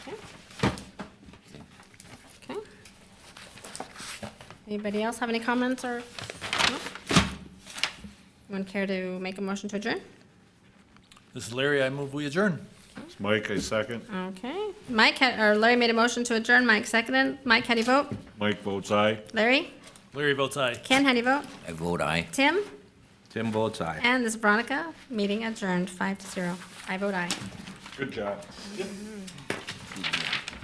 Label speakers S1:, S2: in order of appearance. S1: Anybody else have any comments or? no? Anyone care to make a motion to adjourn?
S2: This is Larry. I move we adjourn.
S3: Mike, I second.
S1: Okay. Mike, had- or Larry made a motion to adjourn. Mike seconded. Mike, how do you vote?
S3: Mike votes aye.
S1: Larry?
S2: Larry votes aye.
S1: Ken, how do you vote?
S4: I vote aye.
S1: Tim?
S4: Tim votes aye.
S1: And this is Veronica. Meeting adjourned, five to zero. I vote aye.
S3: Good job.